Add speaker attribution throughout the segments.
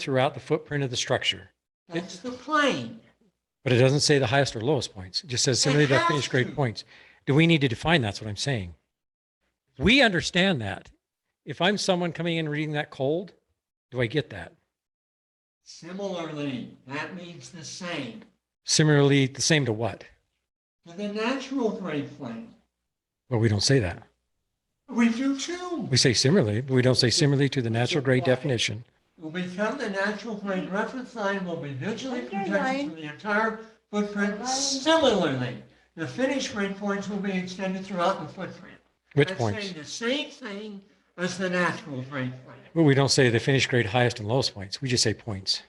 Speaker 1: throughout the footprint of the structure.
Speaker 2: That's the plane.
Speaker 1: But it doesn't say the highest or lowest points. It just says similarly to
Speaker 2: has
Speaker 1: finished
Speaker 2: to.
Speaker 1: grade points. Do we need to define that's what I'm saying? We understand that. If I'm someone coming in reading that cold, do I get that?
Speaker 2: Similarly, that means the same.
Speaker 1: Similarly, the same to what?
Speaker 2: To the natural grade plane,
Speaker 1: Well, we don't say that.
Speaker 2: we do too.
Speaker 1: We say similarly, but we don't say similarly to the natural grade
Speaker 2: Why?
Speaker 1: definition.
Speaker 2: Will become the natural grade reference line will be visually protected
Speaker 3: Underline.
Speaker 2: from the entire footprint. Similarly, the finished grade points will be extended throughout the footprint.
Speaker 1: Which
Speaker 2: That's
Speaker 1: points?
Speaker 2: saying The same thing as the natural grade plane.
Speaker 1: Well, we don't say the finished grade highest and lowest points. We just say points.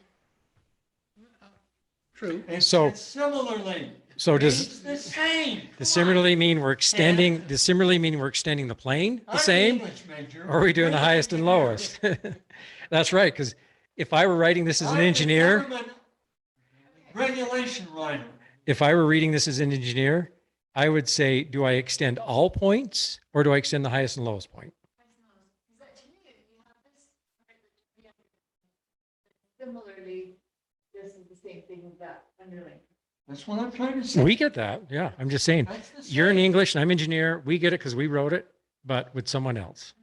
Speaker 4: True.
Speaker 2: It
Speaker 1: So-
Speaker 2: says Similarly.
Speaker 1: So
Speaker 2: It's
Speaker 1: does
Speaker 2: the same.
Speaker 1: the similarly mean we're extending, does similarly mean we're extending the plane the same? Or Are we doing the highest and lowest? That's right, because if I were writing this as an engineer,
Speaker 2: Regulation writer.
Speaker 1: if I were reading this as an engineer, I would say, do I extend all points or do I extend the highest and lowest point?
Speaker 3: Similarly, this is the same thing with that underlying.
Speaker 2: That's what I'm trying to say.
Speaker 1: We get that. Yeah, I'm just saying,
Speaker 2: That's the
Speaker 1: you're an
Speaker 2: same.
Speaker 1: English and I'm engineer. We get it because we wrote it, but with someone else.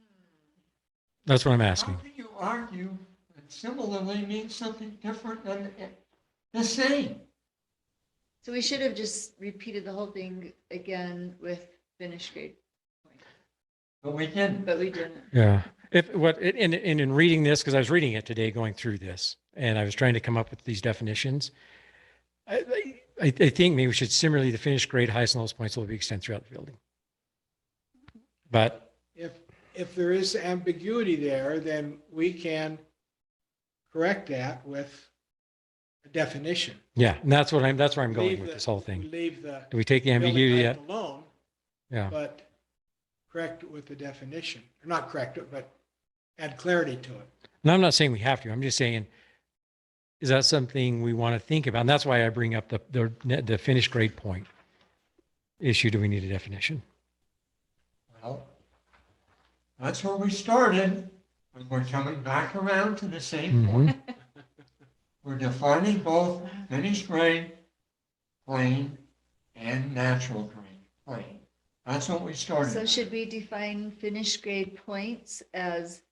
Speaker 1: That's what I'm
Speaker 2: How
Speaker 1: asking.
Speaker 2: can you argue that similarly means something different than it- the same?
Speaker 3: So we should have just repeated the whole thing again with finished grade,
Speaker 2: But we didn't.
Speaker 3: but we didn't.
Speaker 1: Yeah. If what it- and and in reading this, because I was reading it today, going through this, and I was trying to come up with these definitions. I I, I think maybe we should similarly the finished grade highest and lowest points will be extended throughout the building. But
Speaker 4: If, if there is ambiguity there, then we can correct that with a definition.
Speaker 1: yeah, and that's what I'm that's where I'm
Speaker 4: Leave
Speaker 1: going with
Speaker 4: the-
Speaker 1: this whole thing.
Speaker 4: Leave the
Speaker 1: Do we take the
Speaker 4: building
Speaker 1: ambiguity
Speaker 4: height
Speaker 1: out?
Speaker 4: alone,
Speaker 1: Yeah.
Speaker 4: but correct it with the definition, Or not correct it, but add clarity to it.
Speaker 1: And I'm not saying we have to. I'm just saying, is that something we want to think about? And that's why I bring up the the the finished grade point issue. Do we need a definition?
Speaker 2: Well, that's where we started, and we're coming back around to the same
Speaker 1: Mhm.
Speaker 2: point. We're defining both finished grade plane and natural grade plane. That's what we started.
Speaker 3: So
Speaker 2: with.
Speaker 3: should we define finished grade points as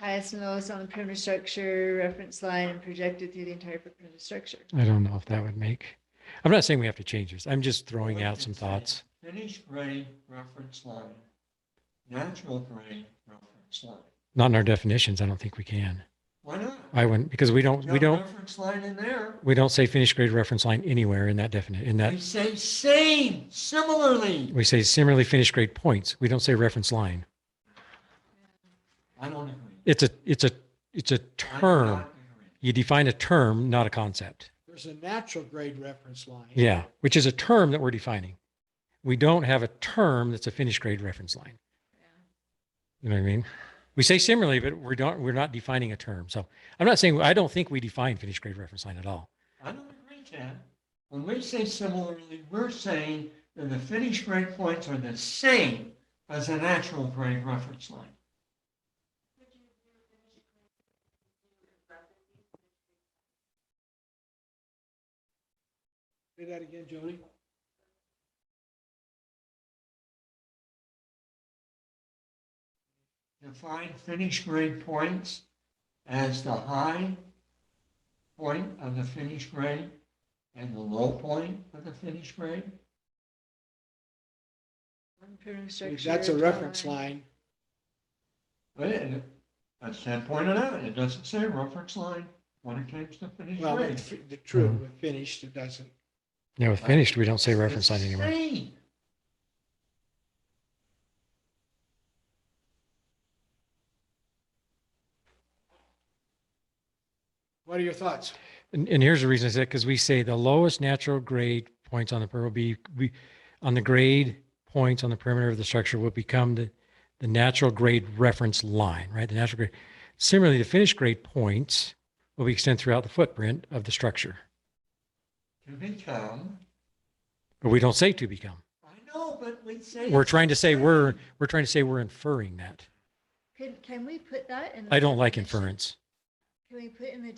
Speaker 3: highest and lowest on the perimeter structure, reference line, and projected through the entire footprint of the structure?
Speaker 1: I don't know if that would make, I'm not saying we have to change this. I'm just throwing out some
Speaker 2: Finished grade-
Speaker 1: thoughts.
Speaker 2: Finished grade reference line, natural grade reference line.
Speaker 1: Not in our definitions. I don't think we can.
Speaker 2: Why not?
Speaker 1: I wouldn't, because we don't, we
Speaker 2: No
Speaker 1: don't,
Speaker 2: Reference line in there.
Speaker 1: we don't say finished grade reference line anywhere in that definite, in that,
Speaker 2: We say same, similarly.
Speaker 1: we say similarly finished grade points. We don't say reference line.
Speaker 2: I don't agree.
Speaker 1: It's a, it's a, it's a
Speaker 2: I do
Speaker 1: term.
Speaker 2: not agree.
Speaker 1: You define a term, not a concept.
Speaker 4: There's a natural grade reference line.
Speaker 1: Yeah, which is a term that we're defining. We don't have a term that's a finished grade reference line. You know what I mean? We say similarly, but we're not, we're not defining a term. So I'm not saying, I don't think we define finished grade reference line at all.
Speaker 2: I don't agree, Chad. When we say similarly, we're saying that the finished grade points are the same as the natural grade reference line.
Speaker 4: Say that again, Jody.
Speaker 2: Define finished grade points as the high point of the finished grade and the low point of the finished grade.
Speaker 3: On the perimeter
Speaker 4: If
Speaker 3: structure,
Speaker 4: that's a
Speaker 3: draw
Speaker 4: reference line,
Speaker 2: But it- as Ted pointed out, it doesn't say reference line when it comes to finished
Speaker 4: well,
Speaker 2: grade.
Speaker 4: the the true,
Speaker 1: Hmm.
Speaker 4: with finished, it doesn't.
Speaker 1: Yeah, with finished, we don't say reference line
Speaker 2: It's the
Speaker 1: anywhere.
Speaker 2: same.
Speaker 4: What are your thoughts?
Speaker 1: And, and here's the reason I said, because we say the lowest natural grade points on the perimeter will be, we, on the grade points on the perimeter of the structure will become the, the natural grade reference line, right? The natural grade. Similarly, the finished grade points will be extended throughout the footprint of the structure,
Speaker 2: To become,
Speaker 1: but we don't say to become.
Speaker 2: I know, but we say.
Speaker 1: We're
Speaker 2: it's
Speaker 1: trying to
Speaker 2: the
Speaker 1: say we're,
Speaker 2: same.
Speaker 1: we're trying to say we're inferring that.
Speaker 3: Can, can we put that in? the
Speaker 1: I don't like
Speaker 3: definition?
Speaker 1: inference.
Speaker 3: Can we put in the